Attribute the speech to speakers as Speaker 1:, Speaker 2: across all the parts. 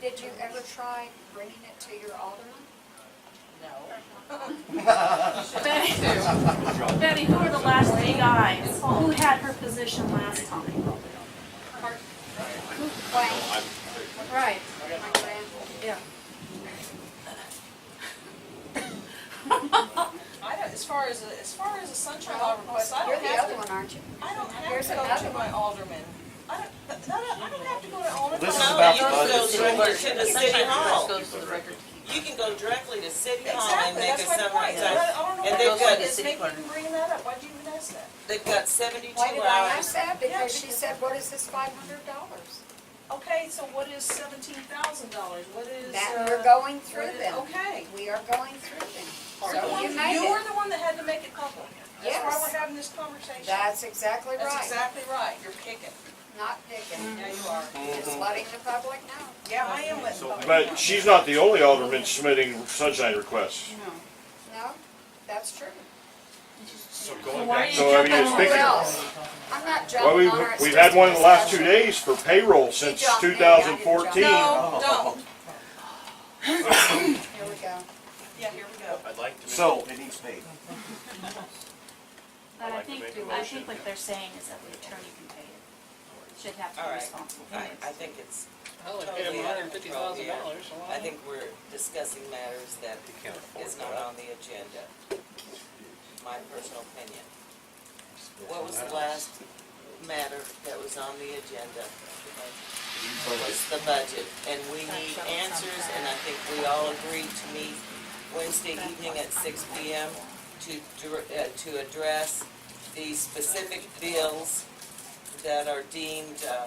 Speaker 1: Did you ever try bringing it to your alderman?
Speaker 2: Betty, Betty, who were the last three guys? Who had her position last time?
Speaker 1: Wayne,
Speaker 2: Right,
Speaker 1: my grand,
Speaker 2: yeah.
Speaker 3: I don't, as far as, as far as a sunshine law request, I
Speaker 1: you're
Speaker 3: don't
Speaker 1: the
Speaker 3: have
Speaker 1: other
Speaker 3: to,
Speaker 1: one, aren't you?
Speaker 3: I don't have
Speaker 1: Here's
Speaker 3: to go
Speaker 1: another
Speaker 3: to my alderman. I don't, but no, no, I don't have to go to alderman.
Speaker 4: This is
Speaker 3: No,
Speaker 4: about
Speaker 3: you-
Speaker 4: the
Speaker 5: You
Speaker 4: budget.
Speaker 5: can go directly to the city hall.
Speaker 6: goes to the record.
Speaker 5: You can go directly to city hall and
Speaker 3: Exactly,
Speaker 5: make a
Speaker 3: that's my
Speaker 5: summary.
Speaker 3: point. I don't- I don't know
Speaker 5: And
Speaker 3: why
Speaker 5: they've
Speaker 3: you
Speaker 5: got the
Speaker 3: guys
Speaker 6: city
Speaker 3: make me
Speaker 6: clerk.
Speaker 3: bring that up. Why do you even ask that?
Speaker 5: They've got seventy-two
Speaker 1: Why did I
Speaker 5: hours.
Speaker 1: ask that? Because she said, what is this five hundred dollars?
Speaker 3: Okay, so what is seventeen thousand dollars? What is,
Speaker 1: That, we're
Speaker 3: uh?
Speaker 1: going through them.
Speaker 3: Okay.
Speaker 1: We are going through them.
Speaker 3: You're the
Speaker 1: So
Speaker 3: one-
Speaker 1: you made
Speaker 3: You were
Speaker 1: it.
Speaker 3: the one that had to make it public. That's why
Speaker 1: Yes.
Speaker 3: we're having this conversation.
Speaker 1: That's exactly
Speaker 3: That's
Speaker 1: right.
Speaker 3: exactly right. You're kicking.
Speaker 1: Not digging.
Speaker 3: Yeah, you are.
Speaker 4: Mm-hmm.
Speaker 1: Just letting the public know.
Speaker 3: Yeah, I am letting public. know.
Speaker 4: But she's not the only alderman submitting sunshine requests.
Speaker 1: No, that's true.
Speaker 7: So
Speaker 2: So
Speaker 7: going
Speaker 2: why
Speaker 7: back,
Speaker 2: do
Speaker 4: So,
Speaker 2: you
Speaker 4: I mean,
Speaker 2: jump
Speaker 4: it's
Speaker 2: on
Speaker 1: Who
Speaker 4: big-
Speaker 2: her?
Speaker 1: else? I'm not
Speaker 4: Well,
Speaker 1: jumping
Speaker 4: we've,
Speaker 1: on her. It's
Speaker 4: we've
Speaker 1: just
Speaker 4: had one
Speaker 1: a
Speaker 4: in the last two
Speaker 1: discussion.
Speaker 4: days for payroll since
Speaker 1: jumped me,
Speaker 4: two
Speaker 1: I didn't
Speaker 4: thousand
Speaker 1: jump.
Speaker 4: fourteen.
Speaker 3: No, don't.
Speaker 1: Here we go.
Speaker 3: Yeah, here we go.
Speaker 7: I'd like to make.
Speaker 8: So, it needs paid.
Speaker 2: But
Speaker 7: I'd
Speaker 2: I
Speaker 7: like to
Speaker 2: think,
Speaker 7: make a
Speaker 2: I
Speaker 7: motion.
Speaker 2: think what they're saying is that the attorney can pay it, should have to
Speaker 5: All
Speaker 2: be
Speaker 5: right.
Speaker 2: responsible for
Speaker 5: I,
Speaker 2: it.
Speaker 5: I think it's,
Speaker 6: Hell,
Speaker 5: if you have $150,000,
Speaker 6: dollars,
Speaker 5: I think we're discussing matters that is not on the agenda. My personal opinion. What was the last matter that was on the agenda? Was the budget, and we need answers, and I think we all agreed to meet Wednesday evening at six P M to, dir- uh, to address the specific bills that are deemed, uh,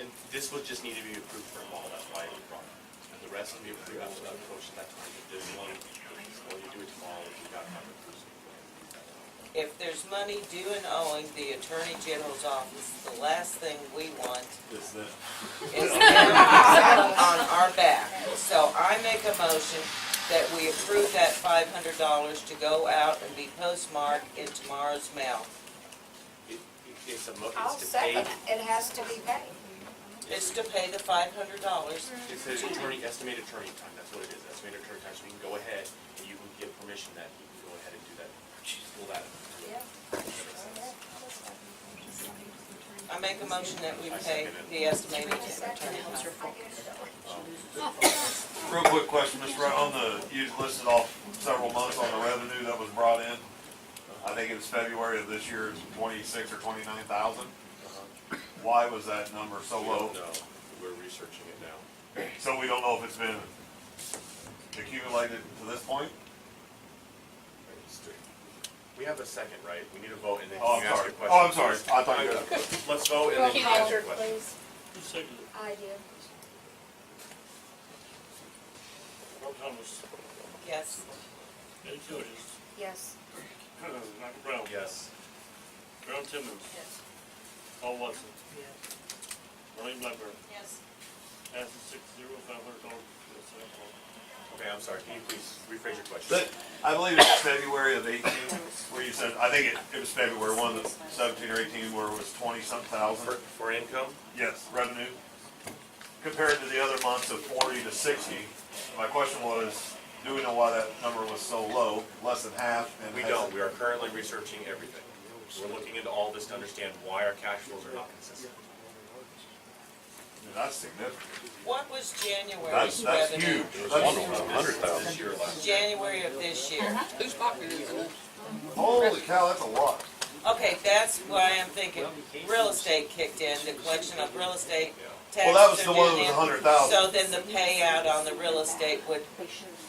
Speaker 7: And this would just need to be approved for all, that's why it was brought up. And the rest will be approved after that motion, that's why you did this one, or you do it tomorrow if you got covered.
Speaker 5: if there's money due and owing the Attorney General's office, the last thing we want
Speaker 7: Is that?
Speaker 5: is them on our back. So I make a motion that we approve that five hundred dollars to go out and be postmarked in tomorrow's mail.
Speaker 7: It, it's a mo,
Speaker 1: I'll
Speaker 7: it's to pay,
Speaker 1: second it. It has to be paid.
Speaker 5: It's to pay the five hundred dollars.
Speaker 7: it's an attorney, estimated attorney time, that's what it is, estimated attorney time, so we can go ahead and you can give permission that he can go ahead and do that, pull that.
Speaker 1: Yeah.
Speaker 5: I make a motion that we pay the estimated attorney.
Speaker 1: I get it.
Speaker 9: Real quick question, Mr. Wright, on the, you listed off several months on the revenue that was brought in. I think it's February of this year, it's twenty-six or twenty-nine thousand. Why was that number so
Speaker 7: We don't
Speaker 9: low?
Speaker 7: know, we're researching it now.
Speaker 9: So we don't know if it's been accumulated to this point?
Speaker 7: We have a second, right? We need a vote and then
Speaker 9: Oh,
Speaker 7: you
Speaker 9: I'm
Speaker 7: ask
Speaker 9: sorry.
Speaker 7: your question.
Speaker 9: Oh, I'm sorry. I thought you had-
Speaker 7: Let's vote and then you ask your question.
Speaker 1: I do.
Speaker 5: Yes.
Speaker 1: Yes.
Speaker 10: Brown,
Speaker 7: Yes.
Speaker 10: Brown Timmons,
Speaker 3: Yes.
Speaker 10: Paul Watson, Ronnie Blackburn,
Speaker 3: Yes.
Speaker 10: passes six zero five hundred dollars to the Senate floor.
Speaker 7: Okay, I'm sorry. Can you please rephrase your question?
Speaker 9: But I believe it's February of eighteen, where you said, I think it, it was February one, the seventeen or eighteen, where it was twenty-some
Speaker 7: For,
Speaker 9: thousand.
Speaker 7: for income?
Speaker 9: Yes, revenue. Compared to the other months of forty to sixty, my question was, do we know why that number was so low, less than half? and
Speaker 7: We
Speaker 9: has it-
Speaker 7: don't. We are currently researching everything. We're looking into all this to understand why our cash flows are not consistent.
Speaker 9: I mean, That's significant.
Speaker 5: What was
Speaker 9: That's,
Speaker 5: January's
Speaker 9: that's
Speaker 5: revenue?
Speaker 9: huge. That's-
Speaker 7: Hundred thousand. This year or last year.
Speaker 5: January of this year.
Speaker 6: Who's pocket is it?
Speaker 9: Holy cow, that's a lot.
Speaker 5: Okay, that's why I'm thinking real estate kicked in, the collection of real estate
Speaker 9: Well, that was
Speaker 5: taxes
Speaker 9: the
Speaker 5: are
Speaker 9: one
Speaker 5: due
Speaker 9: that was a
Speaker 5: in.
Speaker 9: hundred thousand,
Speaker 5: So then the payout on the real estate would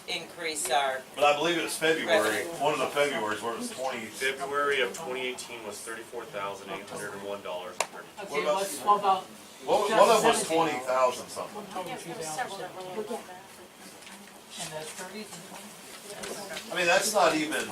Speaker 5: increase our,
Speaker 9: but I believe it's February,
Speaker 5: Revenue.
Speaker 9: one of the Februarys where it was twenty.
Speaker 7: February of twenty eighteen was thirty-four thousand eight hundred and one dollars and thirty.
Speaker 9: What about, what was- one of them was twenty thousand something. I mean, that's not even,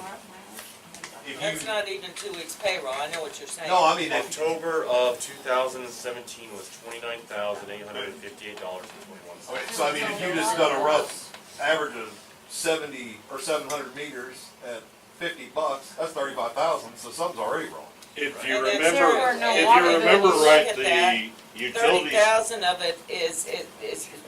Speaker 9: if
Speaker 5: that's
Speaker 9: you,
Speaker 5: not even two weeks payroll, I know what you're saying.
Speaker 9: no, I mean, if,
Speaker 7: October of two thousand and seventeen was twenty-nine thousand eight hundred and fifty-eight dollars and twenty-one
Speaker 9: Okay,
Speaker 7: cents.
Speaker 9: so I mean, if you just done a rough average of seventy or seven hundred meters at fifty bucks, that's thirty-five thousand, so something's already wrong.
Speaker 4: If you
Speaker 5: And then
Speaker 4: remember,
Speaker 5: there were no
Speaker 4: if
Speaker 5: water
Speaker 4: you remember
Speaker 5: bills.
Speaker 4: right,
Speaker 5: Look at that.
Speaker 4: the
Speaker 5: Thirty
Speaker 4: utilities
Speaker 5: thousand of it is, is, is